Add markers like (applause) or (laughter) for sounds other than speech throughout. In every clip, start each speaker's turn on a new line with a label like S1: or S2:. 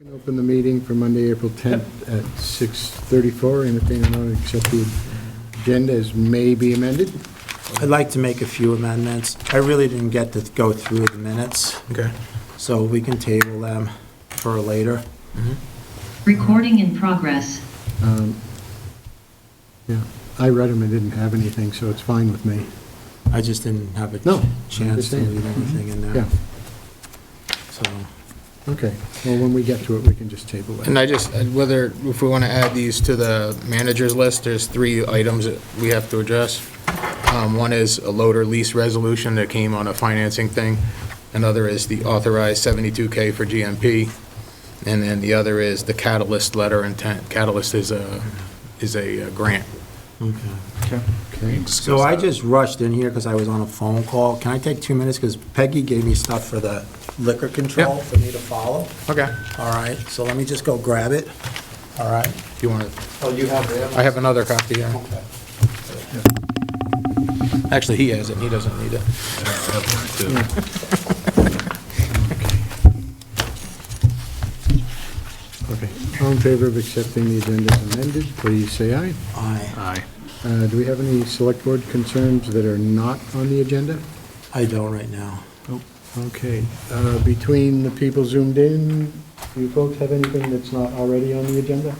S1: We can Open the meeting for Monday, April 10th at 6:34. Entertain a motion to accept the agenda as may be amended.
S2: I'd like to make a few amendments. I really didn't get to go through the minutes,
S3: Okay.
S2: so we can table them for later.
S4: Recording in progress.
S1: Um, Yeah, I read them and didn't have anything, so it's fine with me.
S2: I just didn't have a
S1: No, I
S2: chance to
S1: understand.
S2: leave
S3: Mm-hmm.
S2: anything in there,
S1: Yeah,
S2: so.
S1: okay. Well, when we get to it, we can just table
S3: And
S1: that.
S3: I just, whether, if we want to add these to the manager's list, there's three items that we have to address. Um, One is a loader lease resolution that came on a financing thing. Another is the authorized 72K for GMP. And then the other is the catalyst letter intent. Catalyst is a, is a uh, grant.
S2: Okay.
S1: Okay.
S2: So I just rushed in here because I was on a phone call. Can I take two minutes? Because Peggy gave me stuff for the liquor control
S3: Yeah.
S2: for me to follow.
S3: Okay.
S2: All right, so let me just go grab it. All right?
S3: You want to,
S2: Oh, you have it?
S3: I have another copy. yeah.
S2: Okay.
S3: Actually, he has it. He doesn't need it.
S1: Okay. All in favor of accepting the agenda as amended, please say aye.
S2: I,
S3: Aye.
S1: Uh, Do we have any select board concerns that are not on the agenda?
S2: I don't right now.
S1: Okay, uh, between the people zoomed in, do you folks have anything that's not already on the agenda?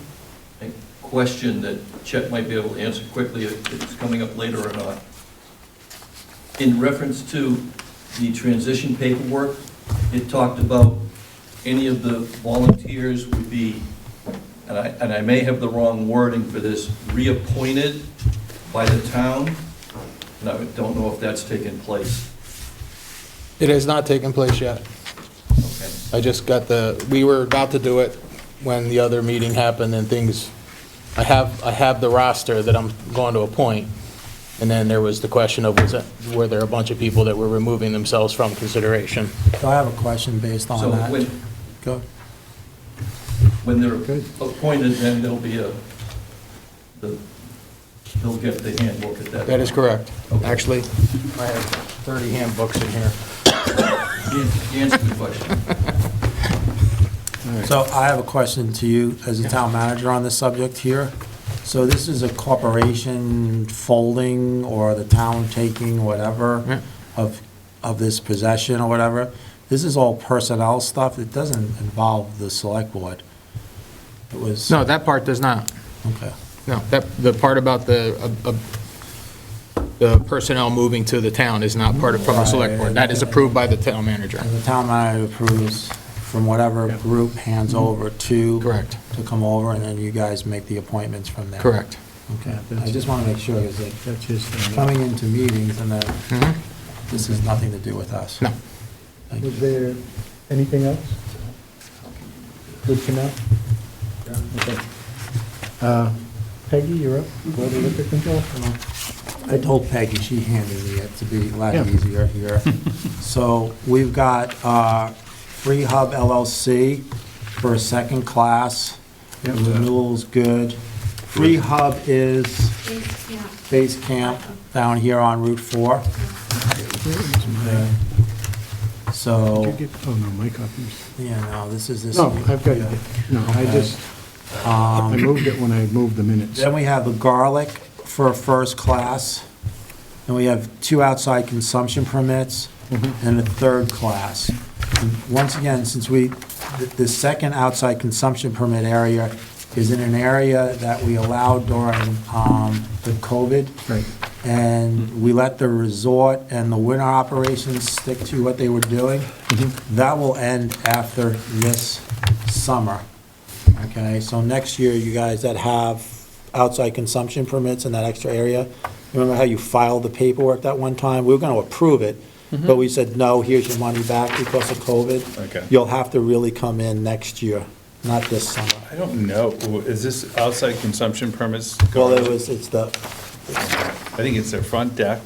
S5: a question that Chet might be able to answer quickly if it's coming up later or not. In reference to the transition paperwork, it talked about any of the volunteers would be, and I, and I may have the wrong wording for this, reappointed by the town, and I don't know if that's taken place.
S3: It has not taken place yet.
S5: Okay.
S3: I just got the, we were about to do it when the other meeting happened and things, I have, I have the roster that I'm going to appoint. And then there was the question of, was, it- were there a bunch of people that were removing themselves from consideration?
S2: So I have a question based on
S5: So
S2: that.
S5: when,
S2: Go.
S5: when they're
S1: Good.
S5: appointed, then there'll be a, the- they'll get the handbook at that.
S3: That is
S5: time.
S3: correct.
S5: Okay.
S3: Actually, I have 30 handbooks in here.
S5: Answer answer the question.
S2: So I have a question to you as a town manager on this subject here. So this is a corporation folding or the town taking
S3: Yeah.
S2: whatever of, of this possession or whatever. This is all personnel stuff. It doesn't involve the select board. It was,
S3: No, that part does not.
S2: okay,
S3: No, that, the part about the, uh, uh, the personnel moving to the town is not part of, from the select board. That is approved by the town manager.
S2: and the town manager approves from whatever group hands over to.
S3: Mm-hmm. Correct.
S2: To come over and then you guys make the appointments from there.
S3: Correct.
S2: Okay, I just want to make sure, is it
S1: That's uh, his thing.
S2: coming into meetings and then
S3: Mhm.
S2: This has nothing to do with us.
S3: No.
S2: Thank
S1: Was
S2: you.
S1: there anything else? Good to know? Okay. Uh, Peggy, you're up, Board of Liquor Control?
S2: I told Peggy, she handed me it to be a lot
S1: Yeah. (laughs)
S2: easier here. So we've got uh, Free Hub LLC for a second class.
S1: Yep.
S2: Renewal's good. Free Hub is
S6: Yeah,
S2: base camp down here on Route 4. So,
S1: Did you get- Oh, no, my copies.
S2: yeah, no, this is this.
S1: No, I've got Um, it. No, I
S2: Okay.
S1: just, I moved it when I moved the minutes.
S2: Then we have the garlic for a first class, and we have two outside consumption permits, and a third class. And Once again, since we, th- the second outside consumption permit area is in an area that we allowed during um, the COVID,
S1: Right.
S2: and we let the resort and the winter operations stick to what they were doing. That will end after this summer, okay? So next year, you guys that have outside consumption permits in that extra area, remember how you filed the paperwork that one time? We were gonna approve it, but we said, no, here's your money back because of COVID.
S7: Mm-hmm. Okay.
S2: You'll have to really come in next year, not this summer.
S7: I don't know, is this outside consumption permits?
S2: Well, it was, it's the,
S7: I think it's their front deck.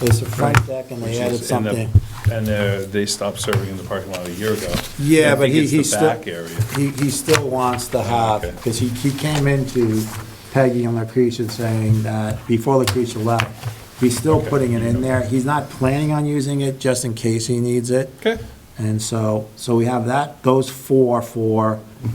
S2: it's the front deck and
S7: which
S2: they
S7: is
S2: added
S7: in the-
S2: something.
S7: And uh, they stopped serving in the parking lot a year ago.
S2: Yeah,
S7: I
S2: but
S7: think
S2: he,
S7: it's the
S2: he still.
S7: back area.
S2: He, he still wants to have,
S7: Okay.
S2: because he, he came into Peggy and Lucretia saying that, before Lucretia left, he's still
S7: Okay.
S2: putting it in there. He's not planning on using it, just in case he needs it.
S7: Okay.
S2: And so, so we have that, those four for